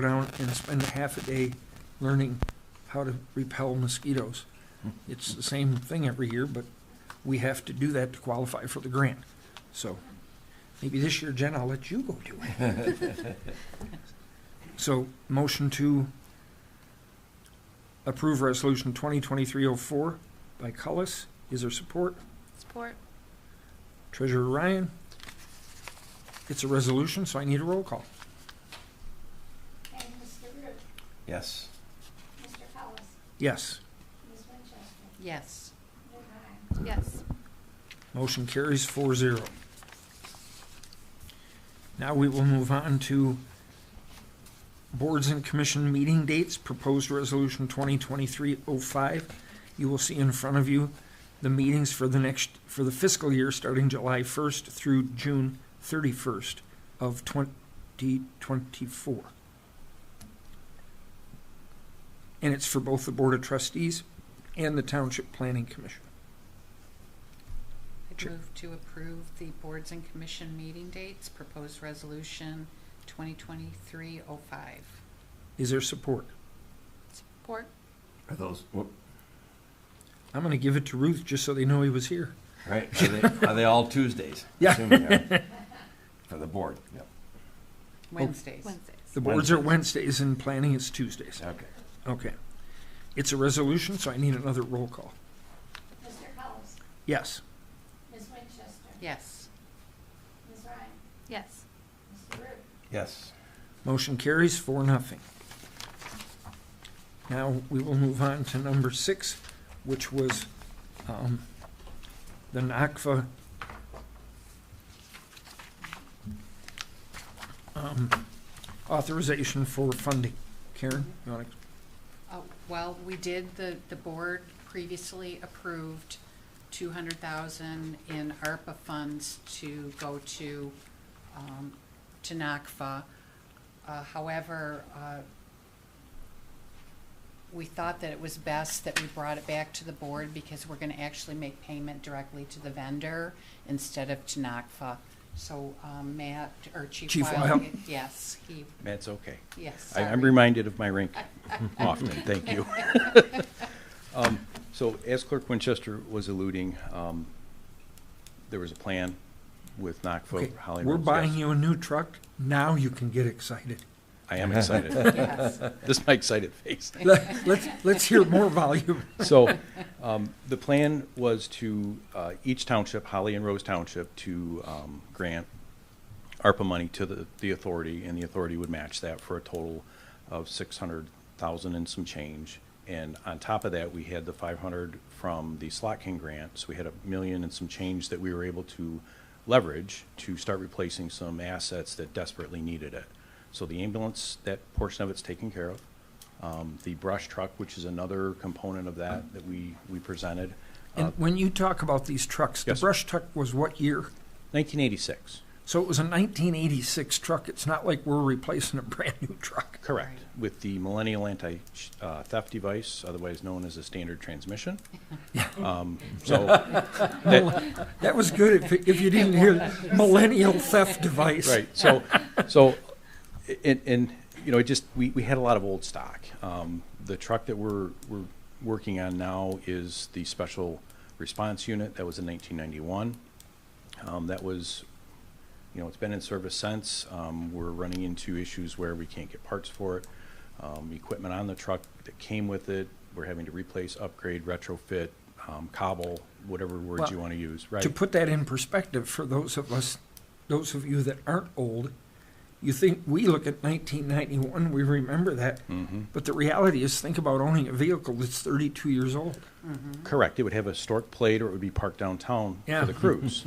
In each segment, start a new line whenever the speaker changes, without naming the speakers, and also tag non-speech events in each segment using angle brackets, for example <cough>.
go down and spend half a day learning how to repel mosquitoes. It's the same thing every year, but we have to do that to qualify for the grant. So maybe this year, Jen, I'll let you go do it. So motion to approve resolution 2023-04 by Cullis. Is there support?
Support.
Treasurer Ryan? It's a resolution, so I need a roll call.
And Mr. Root,
Yes.
Mr. Hollis,
Yes.
Ms. Winchester,
Yes.
Ms. Ryan.
Yes.
Motion carries four zero. Now we will move on to boards and commission meeting dates, proposed resolution 2023-05. You will see in front of you the meetings for the next, for the fiscal year starting July 1st through June 31st of 2024. And it's for both the Board of Trustees and the Township Planning Commission.
I
Sure.
move to approve the boards and commission meeting dates, proposed resolution 2023-05.
Is there support?
Support.
Are those, whoop,
I'm going to give it to Ruth just so they know he was here.
right, are they, are they all <laughs> Tuesdays?
Yeah.
Assuming they are. For the board, yep,
Wednesdays.
The boards are Wednesdays and planning is Tuesdays.
okay.
Okay. It's a resolution, so I need another roll call.
Mr. Hollis,
Yes.
Ms. Winchester,
Yes.
Ms. Ryan,
Yes.
Mr. Root,
Yes.
Motion carries for nothing. Now, we will move on to number six, which was um, the NACFA um, authorization for funding. Karen, you want to
Uh, Well, we did, the, the board previously approved 200,000 in ARPA funds to go to, um, to NACFA. Uh, However, uh, we thought that it was best that we brought it back to the board because we're going to actually make payment directly to the vendor instead of to NACFA. So um, Matt, or Chief
Chief
Wild,
Wild.
yes, he,
That's okay.
yes.
I- I'm
sorry.
reminded of my rink <laughs> often, thank you. Um, So as Clerk Winchester was alluding, um, there was a plan with
Okay,
Knoxville, Holly
We're
Roads,
buying
yes.
you a new truck. Now you can get excited.
I
<laughs>
am excited. <laughs>
Yes.
This is my excited face.
Let- Let's, let's hear more
<laughs>
volume.
So, um, the plan was to, uh, each township, Holly and Rose Township, to, um, grant ARPA money to the, the authority, and the authority would match that for a total of six hundred thousand and some change. And on top of that, we had the five hundred from the Slot King grant, so we had a million and some change that we were able to leverage to start replacing some assets that desperately needed it. So the ambulance, that portion of it's taken care of. Um, the brush truck, which is another component of that, that we, we presented, Uh,
And when you talk about these trucks, the
Yes.
brush truck was what year?
nineteen eighty-six.
So it was a 1986 truck. It's not like we're replacing a brand-new truck.
Correct, with the Millennial Anti-Theft Device, otherwise known as a standard transmission. Um, So, that-
That was good if, if you didn't hear the millennial theft device. <laughs>
right, so, so, and, and, you know, it just, we, we had a lot of old stock. Um, The truck that we're, we're working on now is the Special Response Unit, that was in 1991. Um, That was, you know, it's been in service since. Um, We're running into issues where we can't get parts for it. Um, Equipment on the truck that came with it, we're having to replace, upgrade, retrofit, um, cobble, whatever words you
Well,
want to use, right?
To put that in perspective for those of us, those of you that aren't old, you think we look at 1991, we remember that.
Mhm.
But the reality is, think about owning a vehicle that's 32 years old.
Mm-hmm.
Correct, it would have a stork plate or it would be parked downtown
Yeah.
for the cruise,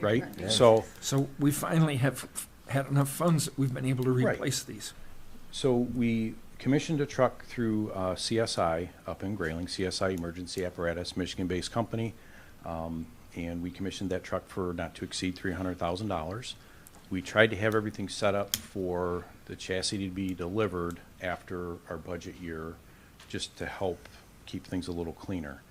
right?
Yeah.
So,
So we finally have had enough funds that we've been able to
Right.
replace these.
so we commissioned a truck through uh, CSI up in Grayling, CSI Emergency Apparatus, Michigan-based company. Um, And we commissioned that truck for not to exceed three hundred thousand dollars. We tried to have everything set up for the chassis to be delivered after our budget year, just to help keep things a little cleaner.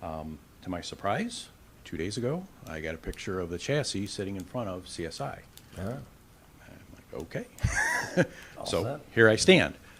Um, To my surprise, two days ago, I got a picture of the chassis sitting in front of CSI.
Ah,
I'm like, okay.
All
So
set.
here I stand.